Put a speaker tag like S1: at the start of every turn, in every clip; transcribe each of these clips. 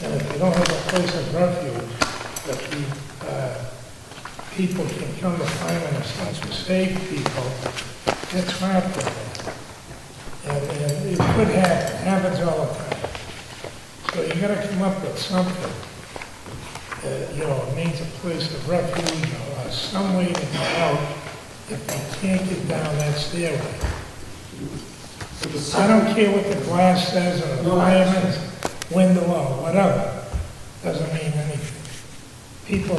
S1: they don't have a place of refuge that the, uh, people can come to find in a sense to save people, that's hard for them. And, and it could happen, happens all the time. So you gotta come up with something, that, you know, means a place of refuge or some way to get out if they can't get down that stairway. I don't care what the glass says or the fireman's window or whatever, doesn't mean anything. People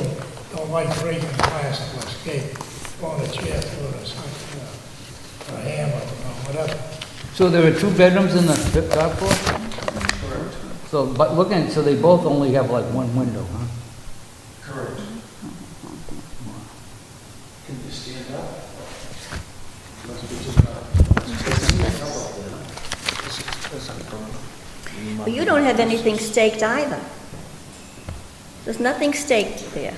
S1: don't like breaking glass to escape, throwing a chair through it or something, or a hammer or whatever.
S2: So there are two bedrooms in the tip top floor? So, but looking, so they both only have like one window, huh?
S3: Correct. Can you stand up? Must be just about-
S4: But you don't have anything staked either. There's nothing staked there.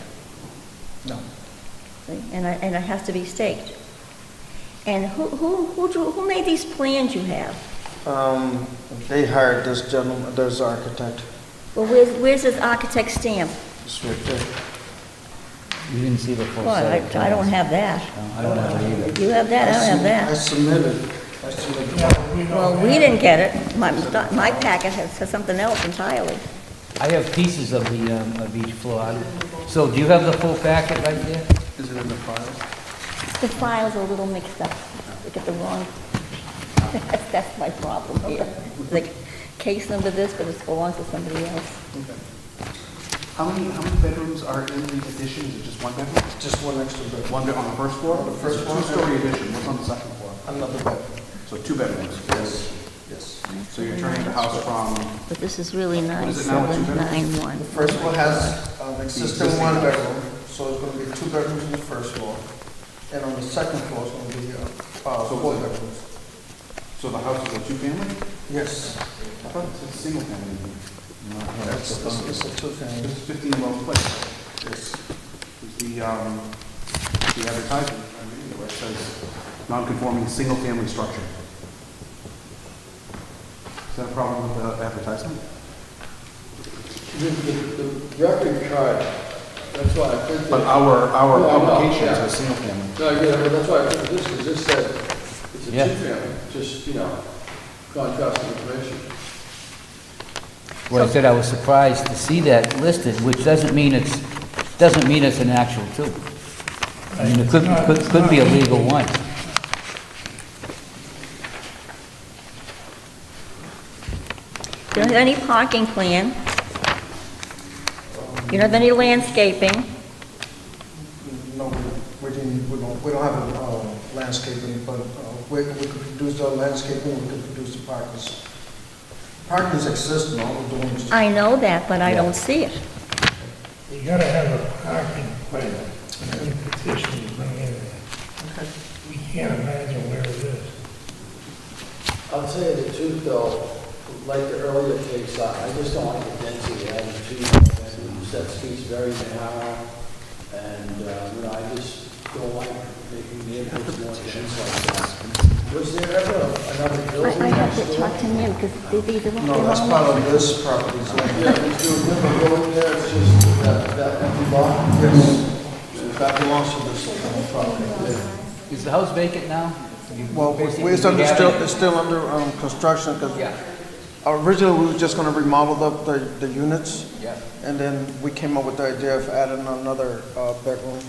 S4: No. And it, and it has to be staked. And who, who, who drew, who made these plans you have?
S5: Um, they hired this gentleman, this architect,
S4: Well, where's, where's this architect's stamp?
S5: this right there.
S2: You didn't see the full
S4: Well, I,
S2: set of
S4: I don't
S2: plans.
S4: have that.
S2: No, I don't have it either.
S4: You have that, I don't have
S5: I
S4: that.
S5: submitted, I submitted.
S1: Yeah, we don't
S4: Well, we
S1: have-
S4: didn't get it. My, my packet has has something else entirely.
S2: I have pieces of the, um, of each floor. I don't- So do you have the full packet right there?
S5: Is it in the file?
S4: The file's are a little mixed up. Look at the wrong, that's my problem here. Like, case number this, but it belongs to somebody else.
S6: How many, how many bedrooms are in the addition? Is it just one bedroom?
S5: Just one extra bedroom,
S6: One bed on the first floor? The
S5: first floor.
S6: Two-story addition, what's on the second floor?
S5: another bedroom.
S6: So two bedrooms.
S5: Yes, yes.
S6: So you're turning the house from,
S4: But this is really nine,
S6: is it now, a
S4: seven, nine,
S6: two-bedroom?
S4: one.
S5: The first floor has an existing one bedroom, so it's gonna be two bedrooms on the first floor. And on the second floor, it's gonna be, uh, uh, four bedrooms.
S6: so the house is a two-family?
S5: Yes,
S6: I thought it's a single-family.
S5: that's, this is a two-family.
S6: This is 15 Wells Place. This is the, um, the advertisement, I mean, where it says, non-conforming, single-family structure. Is that a problem with the advertisement?
S7: The, the, the record card, that's why I printed.
S6: But our, our
S7: No, I know,
S6: publications
S7: yeah.
S6: are single-family.
S7: No, yeah, but that's why I printed this, because this said, it's a
S2: Yeah.
S7: two-family, just, you know, contrasting information.
S2: Well, I said I was surprised to see that listed, which doesn't mean it's, doesn't mean it's an actual two. I mean, it could, could, could be a legal one.
S4: You don't have any parking plan. You don't have any landscaping.
S5: No, we- we didn't, we don't, we don't have a uh, landscaping, but uh, we, we could produce the landscaping, we could produce the parkers. Parkers exist in all the dorms.
S4: I know that, but I don't see it.
S1: You gotta have a parking plan, and you petition to bring in there. We can't imagine where it is.
S7: I'll tell you the truth, though, like the earlier case, I I just don't like the density, having two, bedrooms. that street's very narrow, and, uh, you know, I just don't like making neighborhoods more dense like that. Was there ever another
S4: I,
S7: building
S4: I
S7: next
S4: have
S7: door?
S4: to talk to him, because these are all...
S5: No, that's part of this property, so,
S7: Yeah, there's no river road there, it's just that, that empty lot.
S5: yes.
S7: That belongs to this whole property.
S2: Is the house vacant now? You-
S5: Well,
S2: basically,
S5: it's
S2: you
S5: under,
S2: have
S5: still,
S2: it-
S5: it's still under um, construction,
S2: Yeah,
S5: because originally we were just gonna remodel the, the, the units,
S2: yeah.
S5: and then we came up with the idea of adding another uh, bedroom.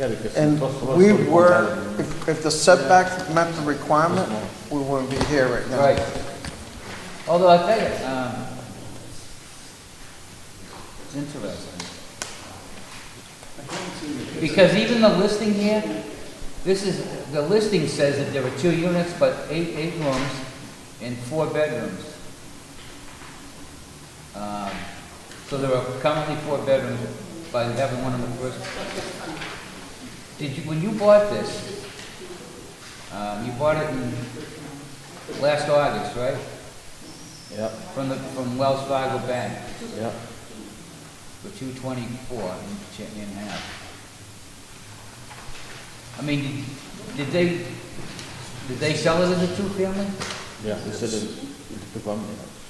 S5: And we were, if, if the setback met the requirement, we wouldn't be here right now.
S2: Right. Although I tell you, um, it's interesting. Because even the listing here, this is, the listing says that there are two units, but eight, eight rooms and four bedrooms. Um, So there are currently four bedrooms by having one in the first. Did you, when you bought this, um, you bought it in last August, right?
S7: Yep,
S2: From the, from Wells Fargo Bank
S7: yep.
S2: for two twenty-four in ch- in half. I mean, did they, did they sell it as a two-family?
S7: Yeah, it's a, it's a